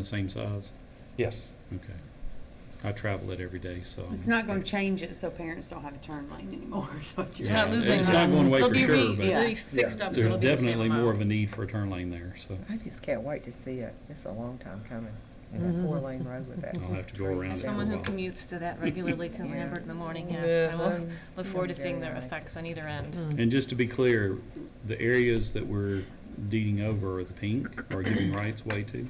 The same size? Yes. Okay. I travel it every day, so. It's I'm- not gonna change it so parents don't have a turn lane anymore, is what you're It's not Yeah, saying. losing It's not going away They'll for be sure, re, but Yeah. re- fixed up, so it'll there's be the same definitely more of a amount. need for a turn lane there, so I just can't wait to see it. It's a long time coming, in a four-lane road with that. I'll have to go around it As for a someone who while. commutes to that regularly to Yeah. Hmm. Lambert in the morning, yes, I will Mhm. look forward to seeing their Very nice. effects on either end. And just to be clear, the areas that we're deeding over are the pink, or giving rights way to?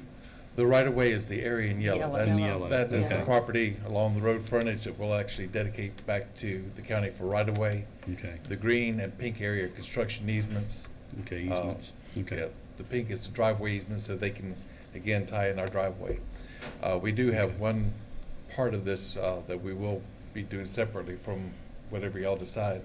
The right-of-way is the area in yellow. Yellow. That's- In yellow, That is the okay. property along the road frontage that we'll actually dedicate back to the county for right-of-way. Okay, The green and pink area are construction easements. okay, Uh, easements, Yeah, okay. The pink is the driveway easement, so they can, again, tie in our driveway. Uh, We do have one part of this uh, that we will be doing separately from whatever y'all decide.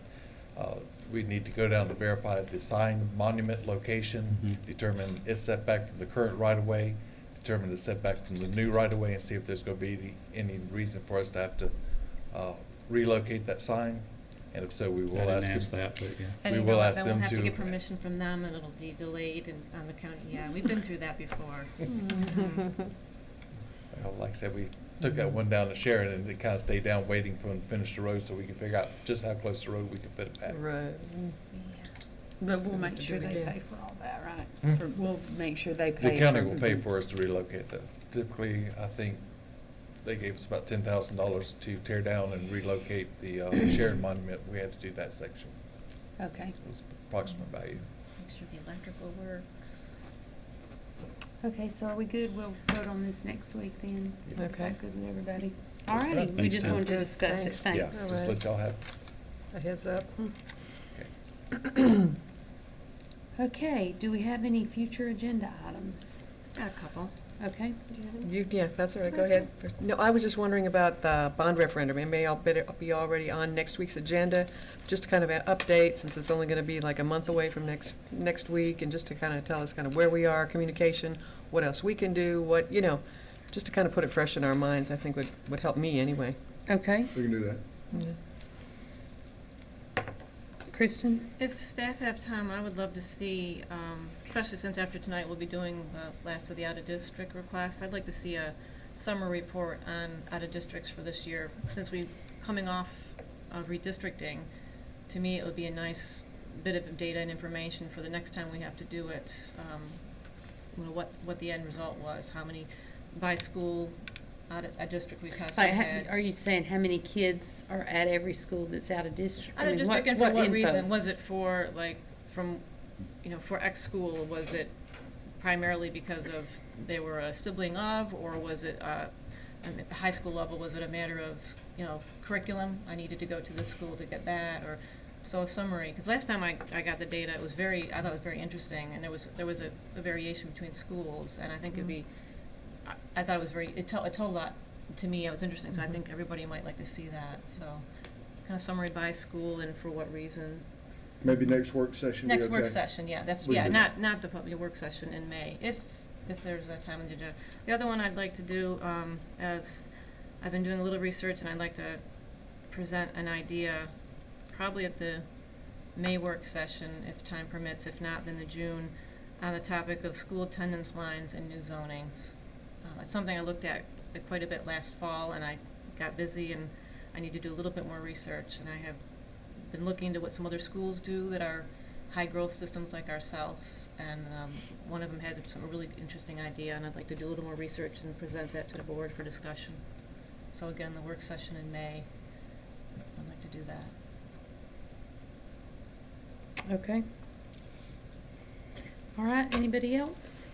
Uh, We need to go down to verify the sign monument location, Mhm. determine its setback from the current right-of-way, determine the setback from the new right-of-way, and see if there's going to be any any reason for us to have to uh, relocate that sign. And if so, we I will didn't ask. ask them- that, but yeah. And We you will know what, ask then we'll them have to to- get permission from them, and it'll be delayed and on the county, yeah, we've been through that before. Mm-hmm. Well, Like I said, we took that one down to Sharon and it kind of stayed down waiting for them to finish the road so we could figure out just how close the road we could fit it back. Right. Mm-hmm. But So we'll we make can sure do it they again. pay for all that, Hmm? right? For- We'll make sure they pay. The county will pay for us to relocate that. Typically, I think they gave us about ten thousand dollars to tear down and relocate the uh, Sharon monument. We had to do that section. Okay, It was approximate value. Make sure the electrical works. okay, so are we good? We'll vote on this next week then? Yeah. Is that Okay. Good with everybody? All That's righty, fine. we just Thanks, wanted to Nancy. discuss it, Thanks. Yeah, thanks. just let y'all have. A heads up. okay. Okay, do we have any future agenda items? Got a couple. Okay, You, yeah, that's all right, go ahead. No, I was just wondering about the bond referendum. It may all be, be already on next week's agenda, just to kind of an update, since it's only gonna be like a month away from next, next week, and just to kind of tell us kind of where we are, communication, what else we can do, what, you know, just to kind of put it fresh in our minds, I think would, would help me anyway. okay, We can do that. Kristen? If staff have time, I would love to see, um, especially since after tonight we'll be doing the last of the out-of-district requests, I'd like to see a summary report on out-of-districts for this year, since we, coming off of redistricting, to me, it would be a nice bit of data and information for the next time we have to do it, um, you know, what, what the end result was, how many by school out-of-district requests we Like, had. ha- are you saying how many kids are at every school that's out of district? I I don't mean, just what- looking for what info? reason, was it for, like, from, you know, for X school, was it primarily because of they were a sibling of, or was it, uh, and at the high school level, was it a matter of, you know, curriculum, I needed to go to this school to get that, or, so a summary, because last time I, I got the data, it was very, I thought it was very interesting, and there was, there was a, a variation between schools, and I think Mm-hmm. it'd be, I, I thought it was very, it told, it told a lot, to me, it was interesting, so I Mhm. think everybody might like to see that, so kind of summary by school and for what reason. Maybe next work session. be Next work okay. session, yeah, that's, We yeah, do. not, not the public work session in May, if, if there's a time to do. The other one I'd like to do, um, as, I've been doing a little research and I'd like to present an idea, probably at the May work session, if time permits, if not, then the June, on the topic of school attendance lines and new zonings. Uh, It's something I looked at uh, quite a bit last fall, and I got busy, and I need to do a little bit more research, and I have been looking into what some other schools do that are high-growth systems like ourselves, and um, one of them had some really interesting idea, and I'd like to do a little more research and present that to the board for discussion. So again, the work session in May, I'd like to do that. Okay. All right, anybody else?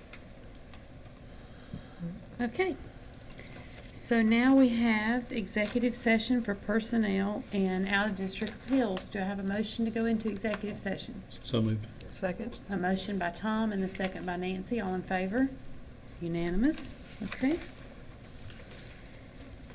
Okay. So now we have executive session for personnel and out-of-district appeals. Do I have a motion to go into executive session? So moved. Second? A motion by Tom and a second by Nancy. All in favor? Unanimous? Okay.